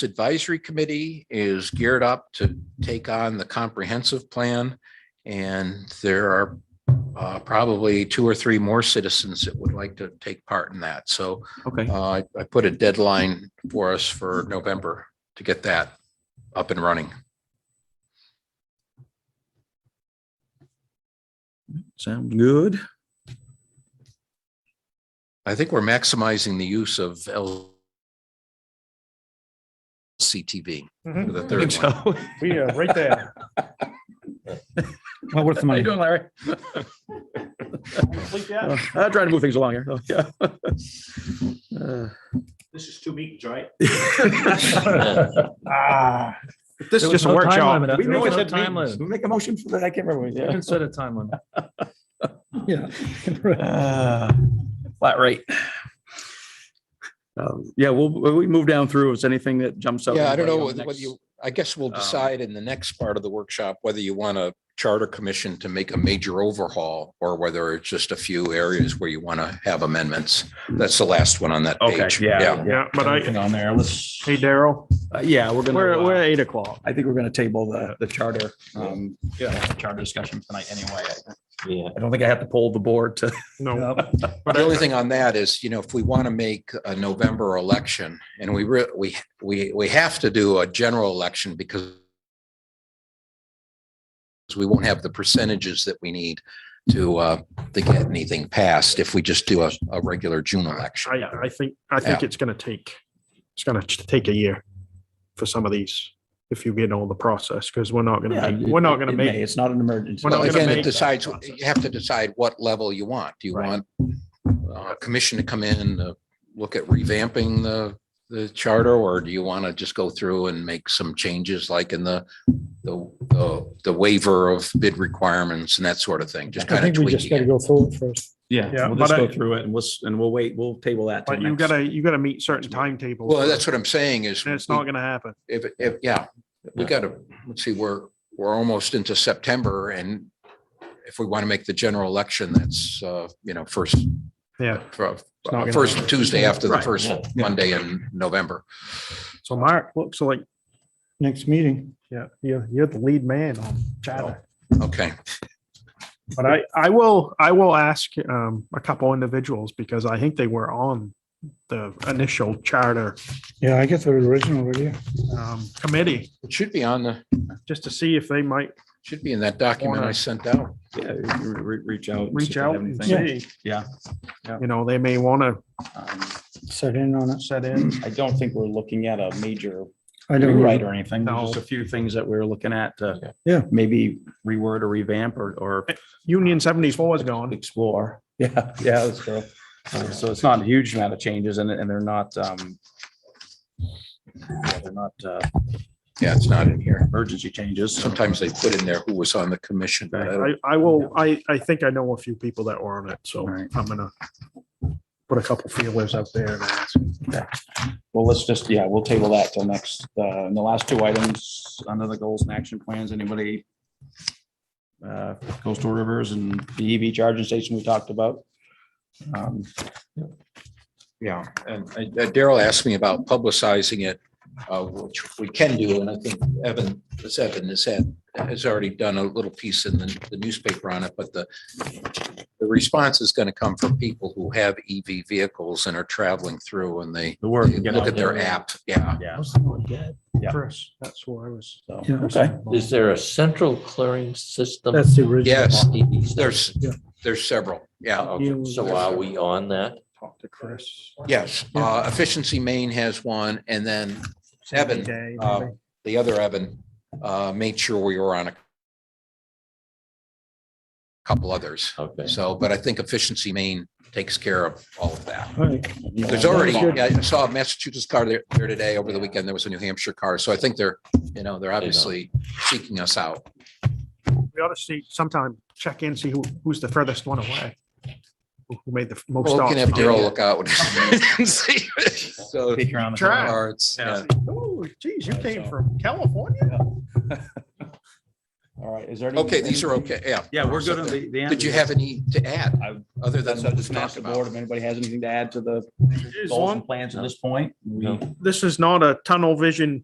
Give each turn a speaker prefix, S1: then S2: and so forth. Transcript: S1: Advisory Committee is geared up to take on the comprehensive plan. And there are uh, probably two or three more citizens that would like to take part in that. So
S2: Okay,
S1: uh, I I put a deadline for us for November to get that up and running.
S2: sounds good.
S1: I think we're maximizing the use of LCTV for
S3: Mhm.
S1: the
S2: I think
S1: third one.
S2: so.
S3: We are right there.
S4: Well, worth the
S2: How
S4: money.
S2: you doing, Larry?
S3: Complete
S2: Uh,
S3: that.
S2: I'm trying to move things along here. Oh, yeah. Uh,
S3: This is two meetings, right?
S4: Ah.
S2: This is just a workshop.
S4: We
S3: There was
S4: make
S3: no
S4: a
S3: time
S4: time
S3: limit.
S4: limit.
S2: We make a motion for that. I can't remember.
S4: We
S2: Yeah.
S4: can set a time limit.
S2: Yeah. Flat rate. Um, Yeah, we'll, we move down through. Is anything that jumps up?
S1: Yeah, I don't know
S2: anybody
S1: whether
S2: on
S1: whether
S2: next-
S1: you, I guess we'll
S2: um,
S1: decide in the next part of the workshop whether you want a charter commission to make a major overhaul or whether it's just a few areas where you want to have amendments. That's the last one on that
S2: Okay,
S1: page.
S2: yeah.
S3: Yeah, but I,
S4: Anything On there, let's.
S3: hey, Daryl,
S2: Uh, Yeah, we're gonna.
S4: We're,
S2: uh,
S4: we're at eight o'clock.
S2: I think we're gonna table the, the charter. Um,
S4: Yeah. Charter discussion tonight anyway.
S5: Yeah,
S2: I don't think I have to poll the board to.
S3: no,
S1: But the only thing on that is, you know, if we want to make a November election and we, re- we, we, we have to do a general election because we won't have the percentages that we need to, uh, to get anything passed if we just do a, a regular June election.
S3: I, I think, I think it's gonna take, it's gonna t- take a year for some of these, if you get all the process, because we're not
S2: Yeah,
S3: gonna, make-
S2: it-
S3: we're not gonna
S2: it may.
S3: make,
S2: It's not an emergency.
S3: We're not
S1: Well,
S3: gonna
S1: again, it
S3: make-
S1: decides, you have to decide what level you want. Do you
S3: Right.
S1: want uh, commission to come in, uh, look at revamping the, the charter? Or do you want to just go through and make some changes like in the, the, the- the waiver of bid requirements and that sort of thing? Just
S6: I
S1: kind of
S6: think we just
S1: tweaking
S6: gotta
S1: it.
S6: go through it first.
S3: Yeah,
S2: Yeah, we'll just
S3: but I-
S2: go through it and we'll, s- and we'll wait. We'll table that. till
S3: but you
S2: next-
S3: gotta, you gotta meet certain timetables.
S1: Well, that's what I'm saying is.
S3: And it's
S1: we-
S3: not gonna happen.
S1: If, if, yeah, we gotta, let's see, we're, we're almost into September and if we want to make the general election, that's, uh, you know, first,
S3: Yeah.
S1: for-
S3: not gonna
S1: first
S3: happen.
S1: Tuesday after the
S3: Right,
S1: first Monday in November.
S3: So Mark looks like,
S6: Next meeting.
S3: yeah, you're, you're the lead man on chatter.
S1: Okay,
S3: But I, I will, I will ask um, a couple individuals because I think they were on the initial charter
S6: Yeah, I get the original already.
S3: um, committee,
S1: it should be on the,
S3: just to see if they might
S1: should be in that document I sent out.
S2: Yeah, re- re- reach out. and see if
S3: reach
S2: they
S3: out
S2: have
S3: and
S2: anything.
S3: see.
S2: Yeah. Yeah.
S3: You know, they may want to
S2: Um,
S6: Set in on it.
S3: set in.
S2: I don't think we're looking at a major
S6: I don't
S2: rewrite
S6: know.
S2: or anything. There's just
S3: No.
S2: a few things that we're looking at to.
S6: Yeah.
S2: Maybe reword or revamp or, or
S3: Union seventy-four is gone.
S2: explore. Yeah, yeah, that's true.
S1: Um,
S2: Uh, So it's not a huge amount of changes and, and they're not, um, yeah, they're not, uh,
S1: Yeah, it's not in here.
S2: emergency changes.
S1: Sometimes they put in there who was on the commission, but I
S3: I,
S1: don't,
S3: I will, I, I think I know a few people that were on it, so
S2: Right.
S3: I'm gonna put a couple feelers out there. and ask.
S2: Well, let's just, yeah, we'll table that till next, uh, and the last two items, under the goals and action plans, anybody? Uh, coastal rivers and the EV charging station we talked about. Um,
S1: yeah. And uh, Daryl asked me about publicizing it, uh, which we can do, and I think Evan, this Evan has had, has already done a little piece in the the newspaper on it, but the the response is going to come from people who have EV vehicles and are traveling through and they
S2: The
S1: they
S2: work. get
S1: look
S2: out
S1: at their
S2: there.
S1: app, yeah.
S2: Yeah. Yeah.
S3: Chris, that's who I was.
S2: so,
S6: Yeah.
S2: Okay.
S5: is there a central clearing system?
S6: That's the original.
S1: Yes,
S5: on EVs?
S1: there's,
S6: Yeah.
S1: there's several, yeah.
S5: Okay, So are we on that?
S3: Talk to Chris.
S1: Yes, uh, Efficiency Maine has one, and then Evan,
S3: Day,
S1: uh,
S3: maybe.
S1: the other Evan, uh, made sure we were on a couple others.
S5: Okay.
S1: So, but I think Efficiency Maine takes care of all of that.
S6: All right.
S1: There's already, I saw a Massachusetts car there there today, over the weekend, there was a New Hampshire car, so I think they're, you know, they're obviously seeking us out.
S3: We ought to see sometime, check in, see who, who's the furthest one away. Who who made the f- most
S1: Well, we
S3: stops.
S1: can have Daryl look out. and see. So,
S2: Peek around the
S3: Try.
S2: corner.
S1: or it's- yeah.
S3: Oh, geez, you came from California?
S2: All right, is there? any-
S1: Okay, these are okay, yeah.
S2: Yeah, we're good on the, the.
S1: Did you have any to add,
S2: I-
S1: other than
S2: That's
S1: what
S2: up
S1: was
S2: to
S1: talked
S2: the board.
S1: about?
S2: If anybody has anything to add to the
S3: As
S2: goals
S3: long,
S2: and plans at this point, we.
S5: No.
S3: this is not a tunnel vision